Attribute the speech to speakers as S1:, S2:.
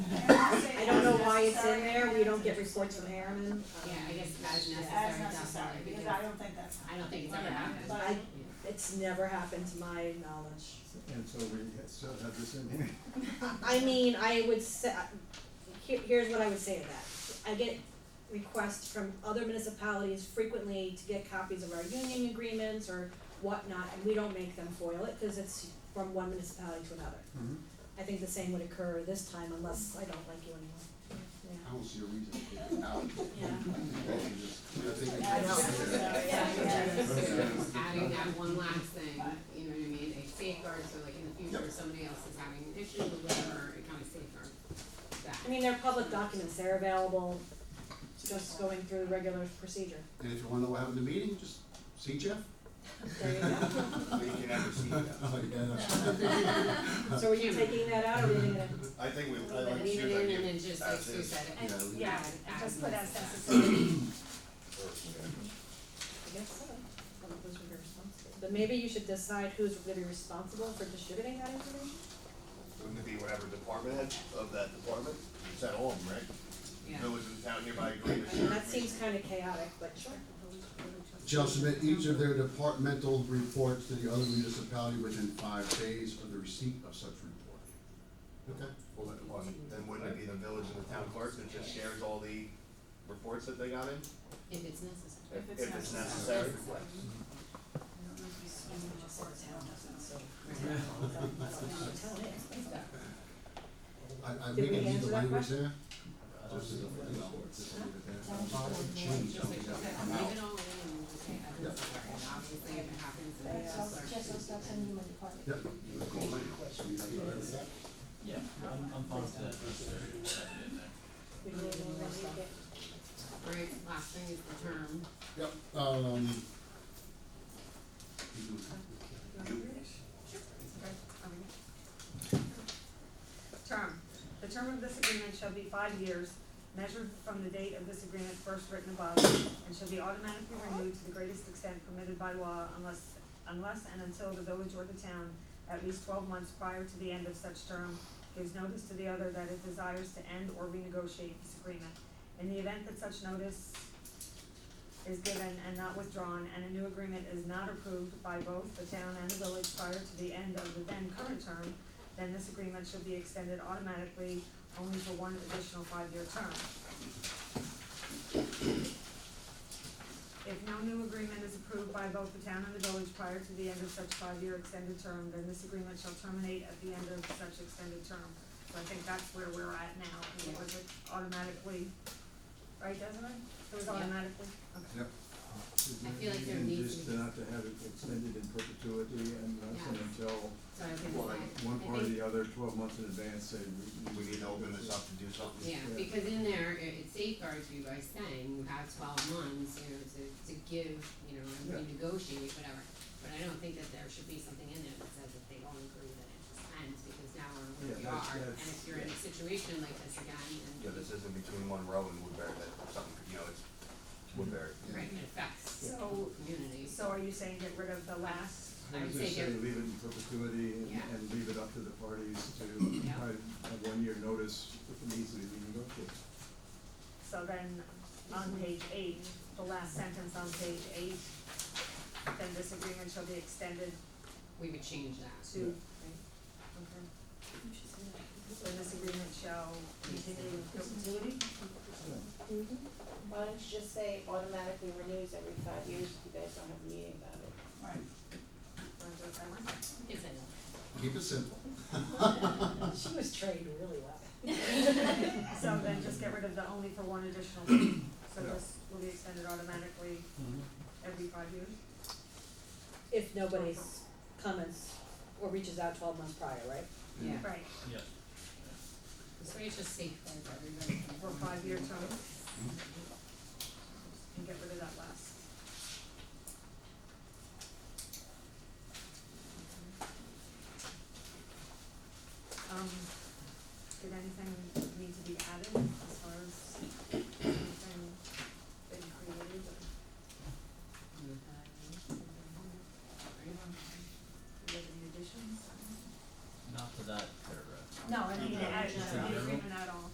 S1: why it's in there, we
S2: necessary.
S1: don't get reports from Harriman.
S3: Yeah, I guess as
S2: As
S3: necessary,
S2: necessary,
S3: necessary,
S2: because I don't think that's.
S3: I don't think it's ever
S2: Yeah,
S3: happened.
S2: but-
S1: I- It's never happened to my knowledge.
S4: And so we still have this in here.
S1: I mean, I would say, here, here's what I would say to that. I get requests from other municipalities frequently to get copies of our union agreements or whatnot, and we don't make them foil it, cause it's from one municipality to another.
S4: Mhm.
S1: I think the same would occur this time unless I don't like you anymore.
S4: I don't see a reason to take it out.
S2: Yeah, it's necessary. Yeah, yeah.
S3: Just Adding that one last thing, you know what I mean, a safeguard, so like in the future, if somebody else is having an issue or whatever, it kind of safeguards that.
S1: I mean, they're public documents, they're available, just going through the regular procedure.
S4: And if you wanna know what happened in the meeting, just see Jeff.
S1: There you go.
S5: We can never see that.
S4: Oh, yeah, that's-
S1: So were you taking that out or leaving it in?
S5: I think we, I like
S3: But leave it in and then just like
S5: as
S3: Sue
S5: is.
S3: said,
S4: Yeah,
S3: add-
S4: we-
S2: Yeah,
S3: add-
S2: and
S3: add
S2: just put as
S3: necessary.
S2: necessary.
S1: I guess so. Well, those would be responsible. But maybe you should decide who's gonna be responsible for distributing that information?
S5: Wouldn't it be whatever department head of that department? It's at home, right?
S3: Yeah.
S5: Village and town hereby agree to
S1: I mean,
S5: share.
S1: that seems kinda chaotic, but sure.
S6: Shall submit each of their departmental reports to the other municipality within five days of the receipt of such report.
S5: Okay, well, then, well, then wouldn't it be the village and the town clerk that just shares all the reports that they got in?
S3: If it's necessary.
S5: If if it's necessary.
S6: I, I
S1: Did
S6: think I
S1: we
S6: need
S1: answer
S6: the
S1: that
S6: language
S1: question?
S6: there. Just as a, you know, just leave it there. I'm sorry, change
S3: Just like,
S6: something
S3: okay, leave it
S6: that come out.
S3: all in and we'll just say add
S6: Yeah.
S3: necessary, and obviously if it happens, then
S7: That's all,
S3: it's
S7: just those stuff in my department.
S6: Yep. So you guys all right with that?
S8: Yeah, I'm, I'm fine with that, that's there, that's in there.
S1: We really don't wanna leak it.
S3: Right, last thing is the term.
S6: Yep, um.
S9: Term, the term of this agreement shall be five years, measured from the date of this agreement first written above, and shall be automatically renewed to the greatest extent permitted by law unless, unless and until the village or the town, at least twelve months prior to the end of such term, gives notice to the other that it desires to end or renegotiate this agreement. In the event that such notice is given and not withdrawn, and a new agreement is not approved by both the town and the village prior to the end of the then current term, then this agreement should be extended automatically only for one additional five-year term. If no new agreement is approved by both the town and the village prior to the end of such five-year extended term, then this agreement shall terminate at the end of such extended term. So I think that's where we're at now, and it was automatically, right, doesn't it? It was
S3: Yeah.
S9: automatically, okay.
S4: Yep.
S3: I feel like there
S4: And
S3: needs
S4: just
S3: to be-
S4: not to have it extended in perpetuity and
S3: Yeah.
S4: that's until
S3: So I think,
S4: one, one
S3: I
S4: part or
S3: think-
S4: the other, twelve months in advance, say we.
S5: We need to open this up to do something.
S3: yeah,
S4: Yeah.
S3: because in there, it it safeguards you by saying you have twelve months, you know, to, to give, you know, and
S4: Yeah.
S3: renegotiate, whatever. But I don't think that there should be something in there that says that they all agree that it just ends, because now we're where
S4: Yeah,
S3: we
S4: that's-
S3: are. And
S4: that's-
S3: if you're in a situation like this again,
S5: Yeah,
S3: and,
S5: this isn't between Monroe and Woodbury, that something, could- you know, it's Woodbury.
S3: right, it affects the
S9: So,
S3: community.
S9: so are you saying get rid of the last?
S3: I would say
S4: Just say
S3: get-
S4: leave it in perpetuity and,
S3: Yeah.
S4: and leave it up to the parties to
S3: Yeah.
S4: provide a one-year notice if it needs to be renegotiated.
S9: So then, on page eight, the last sentence on page eight, then this agreement shall be extended
S3: we would change that.
S9: to, right? Okay. Then this agreement shall continue in perpetuity?
S7: Why don't you just say automatically renews every five years if you guys don't have a meeting about it?
S9: Right. Wanna do it that way?
S3: Yes, I know.
S6: Keep it simple.
S1: Oh, She was trained really well.
S9: So then just get rid of the only for one additional, term. so this will be extended automatically every five years?
S1: If nobody comments or reaches out twelve months prior, right?
S3: Yeah,
S9: Right,
S8: Yeah.
S3: so it's just safeguards everybody.
S9: for a five-year term. And get rid of that last. Um, did anything need to be added?
S3: Mm-hmm.